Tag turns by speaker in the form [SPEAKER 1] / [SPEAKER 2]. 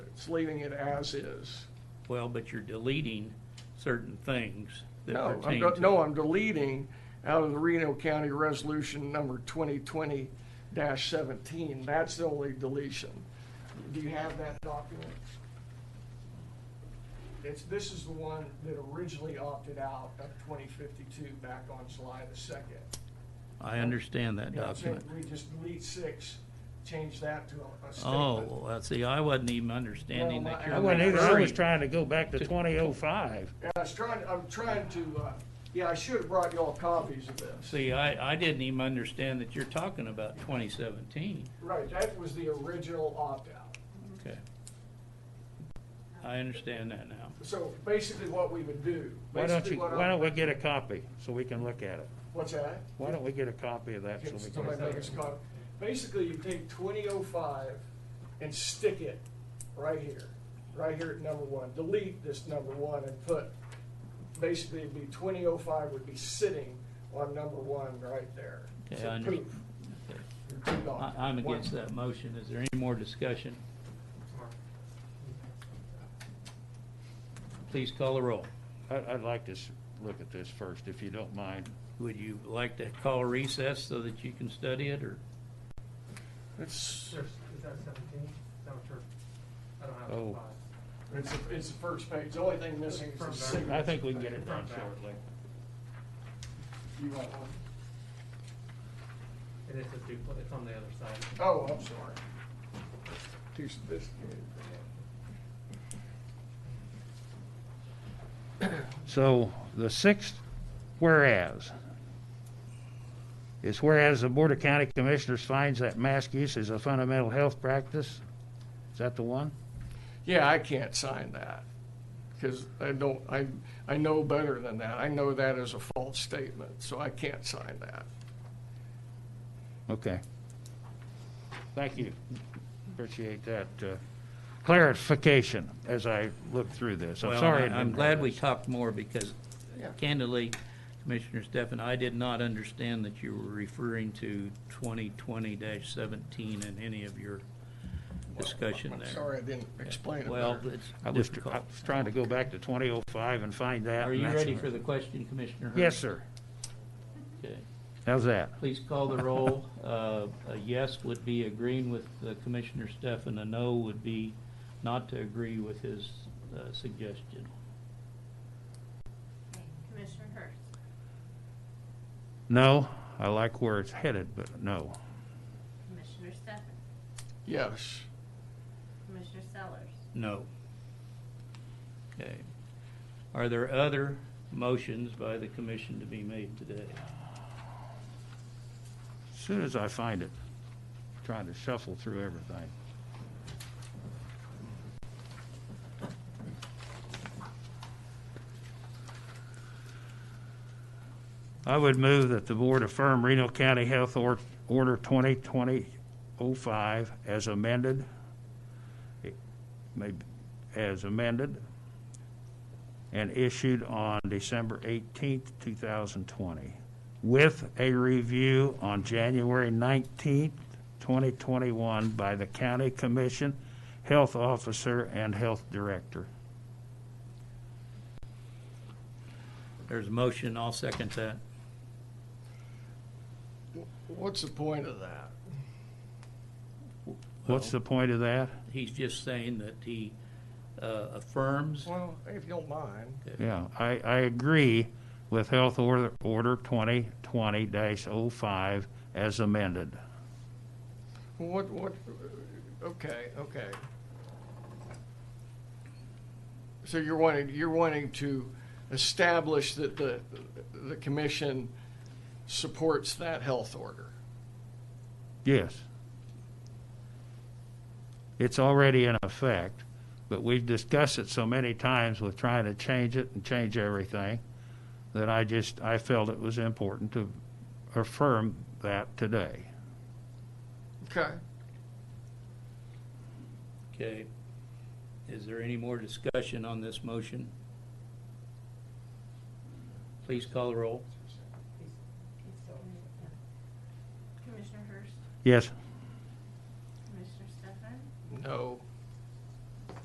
[SPEAKER 1] It's leaving it as is.
[SPEAKER 2] Well, but you're deleting certain things that
[SPEAKER 1] No, I'm,
[SPEAKER 2] pertain
[SPEAKER 1] de-
[SPEAKER 2] to.
[SPEAKER 1] no, I'm deleting out of the Reno County Resolution number twenty twenty seventeen. That's the only deletion. Do you have that document? It's, this is the one that originally opted out of twenty fifty-two back on July the second.
[SPEAKER 2] I understand that document.
[SPEAKER 1] We just delete six, change that to a- a
[SPEAKER 2] Oh,
[SPEAKER 1] statement.
[SPEAKER 2] well, I see, I wasn't even understanding
[SPEAKER 1] Well,
[SPEAKER 2] that
[SPEAKER 1] I-
[SPEAKER 2] you're.
[SPEAKER 1] I
[SPEAKER 3] I wasn't either, I was
[SPEAKER 2] referring-
[SPEAKER 3] trying to go back to 2005.
[SPEAKER 1] Yeah, I was trying, I'm trying to, uh, yeah, I should have brought y'all copies of this.
[SPEAKER 2] See, I, I didn't even understand that you're talking about twenty seventeen.
[SPEAKER 1] Right, that was the original opt-out.
[SPEAKER 2] Okay. I understand that now.
[SPEAKER 1] So basically what we would do.
[SPEAKER 3] Why don't
[SPEAKER 1] basically
[SPEAKER 3] you,
[SPEAKER 1] what
[SPEAKER 3] why
[SPEAKER 1] I-
[SPEAKER 3] don't we get a copy so we can look at it?
[SPEAKER 1] What's that?
[SPEAKER 3] Why don't we get a copy of that so
[SPEAKER 1] Can
[SPEAKER 3] we
[SPEAKER 1] somebody make us
[SPEAKER 3] can?
[SPEAKER 1] a copy? Basically, you take twenty oh five and stick it right here, right here at number one. Delete this number one and put, basically it'd be twenty oh five would be sitting on number one right there.
[SPEAKER 2] Okay,
[SPEAKER 1] So
[SPEAKER 2] I
[SPEAKER 1] poof,
[SPEAKER 2] understand.
[SPEAKER 1] you're two dots.
[SPEAKER 2] I, I'm against that motion. Is there any more discussion? Please call the roll.
[SPEAKER 3] I, I'd like to s- look at this first, if you don't mind.
[SPEAKER 2] Would you like to call recess so that you can study it, or?
[SPEAKER 1] It's,
[SPEAKER 4] There's, is that seventeen? Is that what you're, I don't have
[SPEAKER 3] Oh.
[SPEAKER 4] the five.
[SPEAKER 1] it's, it's the first page. The only thing missing is the
[SPEAKER 4] Front back.
[SPEAKER 1] signature.
[SPEAKER 3] I think we can get it done shortly.
[SPEAKER 1] You want one?
[SPEAKER 4] It is a duplicate, it's on the other side.
[SPEAKER 1] Oh, I'm sorry. Too sophisticated.
[SPEAKER 3] So the sixth whereas is whereas the Board of County Commissioners finds that mask use is a fundamental health practice. Is that the one?
[SPEAKER 1] Yeah, I can't sign that, because I don't, I, I know better than that. I know that is a false statement, so I can't sign that.
[SPEAKER 3] Okay. Thank you. Appreciate that uh, clarification as I looked through this. I'm
[SPEAKER 2] Well,
[SPEAKER 3] sorry. I
[SPEAKER 2] I-
[SPEAKER 3] didn't
[SPEAKER 2] I'm
[SPEAKER 3] know
[SPEAKER 2] glad we
[SPEAKER 3] this.
[SPEAKER 2] talked more because
[SPEAKER 1] Yeah.
[SPEAKER 2] candidly, Commissioner Stefan, I did not understand that you were referring to twenty twenty seventeen in any of your discussion
[SPEAKER 1] I'm
[SPEAKER 2] there.
[SPEAKER 1] sorry I didn't explain it
[SPEAKER 2] Well,
[SPEAKER 1] better.
[SPEAKER 2] it's
[SPEAKER 3] I was, tr- I
[SPEAKER 2] difficult.
[SPEAKER 3] was trying to go back to 2005 and find that.
[SPEAKER 2] Are
[SPEAKER 3] and
[SPEAKER 2] you
[SPEAKER 3] that's-
[SPEAKER 2] ready for the question, Commissioner Hurd?
[SPEAKER 3] Yes, sir.
[SPEAKER 2] Okay.
[SPEAKER 3] How's that?
[SPEAKER 2] Please call the roll. Uh, A yes would be agreeing with uh, Commissioner Stefan, a no would be not to agree with his uh, suggestion.
[SPEAKER 5] Commissioner Hurst,
[SPEAKER 3] No, I like where it's headed, but no.
[SPEAKER 5] Commissioner Stefan,
[SPEAKER 1] Yes,
[SPEAKER 5] Commissioner Sellers,
[SPEAKER 2] No. Okay. Are there other motions by the commission to be made today?
[SPEAKER 3] As Soon as I find it, trying to shuffle through everything. I would move that the board affirm Reno County Health Or- Order 2020-05 as amended, It may- as amended, and issued on December 18th, 2020 with a review on January 19th, 2021 by the County Commission, Health Officer, and Health Director.
[SPEAKER 2] There's a motion, I'll second that.
[SPEAKER 1] what's the point of that?
[SPEAKER 3] What's the point of that?
[SPEAKER 2] He's just saying that he uh, affirms.
[SPEAKER 1] Well, if you don't mind,
[SPEAKER 3] Yeah, I, I agree with Health Order Order 2020-05 as amended.
[SPEAKER 1] what, what, okay, okay. So you're wanting, you're wanting to establish that the, the commission supports that health order?
[SPEAKER 3] Yes. It's already in effect, but we've discussed it so many times with trying to change it and change everything that I just, I felt it was important to affirm that today.
[SPEAKER 1] Okay.
[SPEAKER 2] Okay. Is there any more discussion on this motion? Please call the roll.
[SPEAKER 5] Commissioner Hurst,
[SPEAKER 3] Yes,
[SPEAKER 5] Commissioner Stefan,
[SPEAKER 1] No.